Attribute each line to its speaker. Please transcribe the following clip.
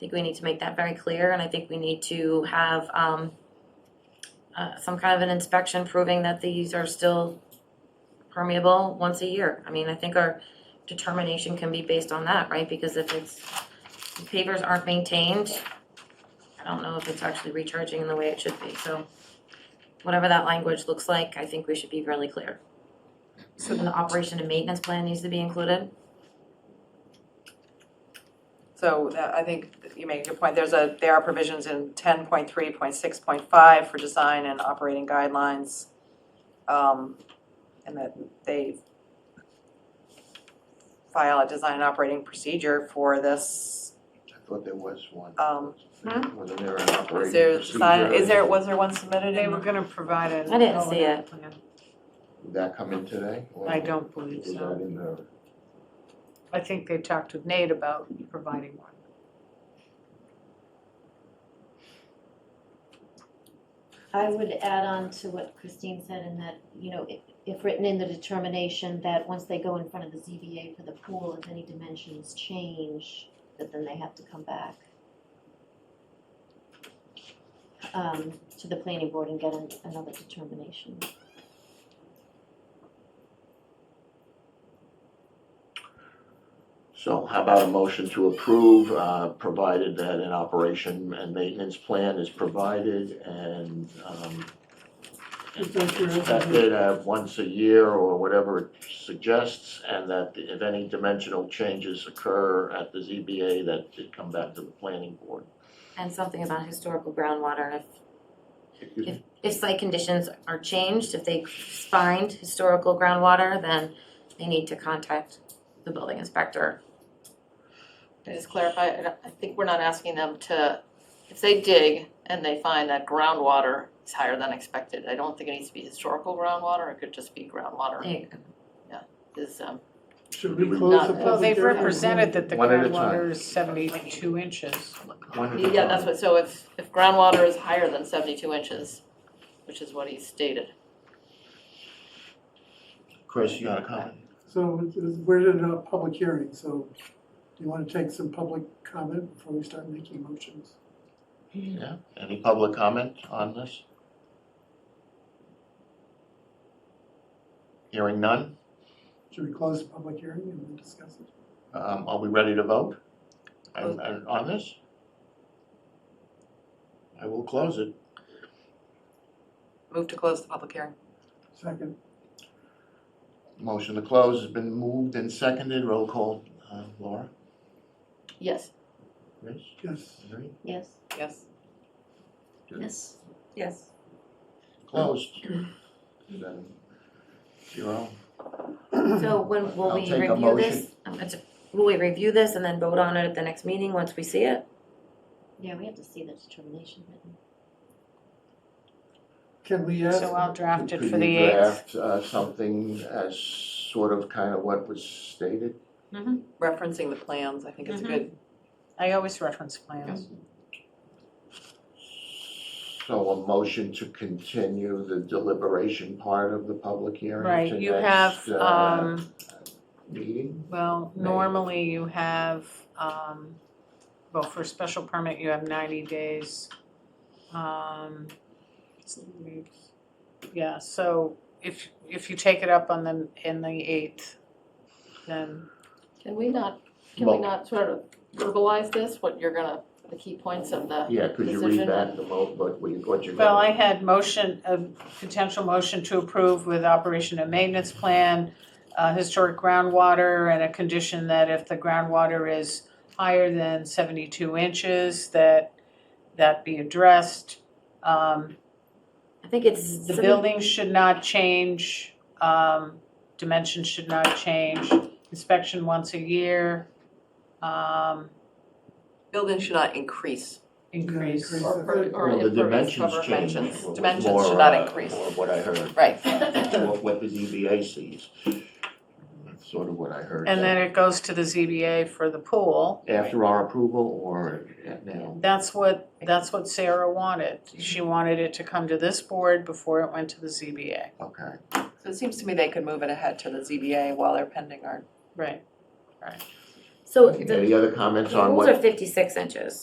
Speaker 1: think we need to make that very clear, and I think we need to have, um, uh, some kind of an inspection proving that these are still permeable once a year. I mean, I think our determination can be based on that, right? Because if it's, if pavers aren't maintained, I don't know if it's actually recharging in the way it should be, so whatever that language looks like, I think we should be really clear. So then the operation and maintenance plan needs to be included.
Speaker 2: So that, I think you make a good point, there's a, there are provisions in ten point three, point six, point five for design and operating guidelines. Um, and that they file a design and operating procedure for this,
Speaker 3: I thought there was one.
Speaker 2: um,
Speaker 3: Wasn't there an operating
Speaker 2: is there, design-
Speaker 3: procedure?
Speaker 2: is there, was there one submitted?
Speaker 4: They were gonna provide an
Speaker 1: I didn't see
Speaker 4: O&M plan.
Speaker 3: Did that come in today? or
Speaker 4: I don't believe
Speaker 3: Was
Speaker 4: so.
Speaker 3: that in the,
Speaker 4: I think they talked with Nate about providing one.
Speaker 5: I would add on to what Christine said in that, you know, if, if written in the determination that once they go in front of the ZBA for the pool, if any dimensions change, that then they have to come back um, to the planning board and get an- another determination.
Speaker 3: so how about a motion to approve, uh, provided that an operation and maintenance plan is provided and, um, inspected uh, once a year or whatever it suggests, and that if any dimensional changes occur at the ZBA, that it come back to the planning board.
Speaker 1: And something about historical groundwater, if,
Speaker 3: Excuse me?
Speaker 1: if site conditions are changed, if they find historical groundwater, then they need to contact the building inspector.
Speaker 6: Can I just clarify, I don't- I think we're not asking them to, if they dig and they find that groundwater is higher than expected, I don't think it needs to be historical groundwater, it could just be groundwater
Speaker 1: They-
Speaker 6: is, um,
Speaker 7: Should we close the
Speaker 6: Not-
Speaker 4: Well,
Speaker 7: public
Speaker 4: they've
Speaker 7: hearing?
Speaker 4: represented that the
Speaker 3: One at a
Speaker 4: groundwater is seventy-two inches.
Speaker 3: One at a
Speaker 6: yeah, that's
Speaker 3: time.
Speaker 6: what, so if, if groundwater is higher than seventy-two inches, which is what he stated,
Speaker 3: Chris, you got a comment?
Speaker 7: So it's- it's- we're in a public hearing, so do you want to take some public comment before we start making motions?
Speaker 3: Yeah, any public comment on this? Hearing none,
Speaker 7: Should we close the public hearing and then discuss it?
Speaker 3: um, are we ready to vote? And, and on this? I will close it.
Speaker 2: move to close the public hearing.
Speaker 7: Second,
Speaker 3: Motion to close has been moved and seconded, roll call, uh, Laura,
Speaker 6: yes.
Speaker 3: Chris,
Speaker 7: yes.
Speaker 3: Mary,
Speaker 5: Yes?
Speaker 2: Yes.
Speaker 5: Yes.
Speaker 1: Yes.
Speaker 3: closed. Seven, Zero.
Speaker 1: So when will
Speaker 3: I'll
Speaker 1: we
Speaker 3: take a
Speaker 1: review
Speaker 3: motion.
Speaker 1: this? Um, it's- Will we review this and then vote on it at the next meeting once we see it?
Speaker 5: Yeah, we have to see the determination written.
Speaker 7: Can we ask,
Speaker 4: So I'll draft it
Speaker 3: Could
Speaker 4: for the
Speaker 3: you
Speaker 4: eighth.
Speaker 3: draft, uh, something as sort of kind of what was stated?
Speaker 2: Referencing the plans, I think it's a
Speaker 1: Mhm.
Speaker 2: good,
Speaker 4: I always reference plans.
Speaker 3: So a motion to continue the deliberation part of the public hearing
Speaker 4: Right,
Speaker 3: to
Speaker 4: you
Speaker 3: next,
Speaker 4: have,
Speaker 3: uh,
Speaker 4: um,
Speaker 3: meeting?
Speaker 4: well,
Speaker 3: May.
Speaker 4: normally you have, um, well, for a special permit, you have ninety days. Um, yeah, so if, if you take it up on the, in the eighth, then
Speaker 6: Can we not, can we
Speaker 3: Well-
Speaker 6: not sort of verbalize this, what you're gonna, the key points of the,
Speaker 3: Yeah, could you read
Speaker 6: Decision.
Speaker 3: back the mo, what, what you- what you're
Speaker 4: Well, I
Speaker 3: gonna,
Speaker 4: had motion, a potential motion to approve with operation and maintenance plan, uh, historic groundwater, and a condition that if the groundwater is higher than seventy-two inches, that that be addressed. Um,
Speaker 1: I think it's.
Speaker 4: The building should not change, um, dimensions should not change, inspection once a year, um,
Speaker 2: building should not increase.
Speaker 4: increase.
Speaker 7: Increase.
Speaker 6: or, or- or
Speaker 3: well, the
Speaker 6: impervious
Speaker 3: dimensions
Speaker 6: cover
Speaker 3: change.
Speaker 6: dimensions.
Speaker 3: was
Speaker 2: Dimensions
Speaker 3: more,
Speaker 2: should not
Speaker 3: uh,
Speaker 2: increase.
Speaker 3: More what I heard,
Speaker 2: Right.
Speaker 3: what, what the ZBA sees. That's sort of what I heard.
Speaker 4: And then it goes to the ZBA for the pool.
Speaker 3: After our approval or at now?
Speaker 4: That's what, that's what Sarah wanted. She wanted it to come to this board before it went to the ZBA.
Speaker 3: Okay.
Speaker 2: So it seems to me they could move it ahead to the ZBA while they're pending our
Speaker 4: Right.
Speaker 1: So the
Speaker 3: Any other comments
Speaker 1: the
Speaker 3: on what?
Speaker 1: rules are fifty-six inches.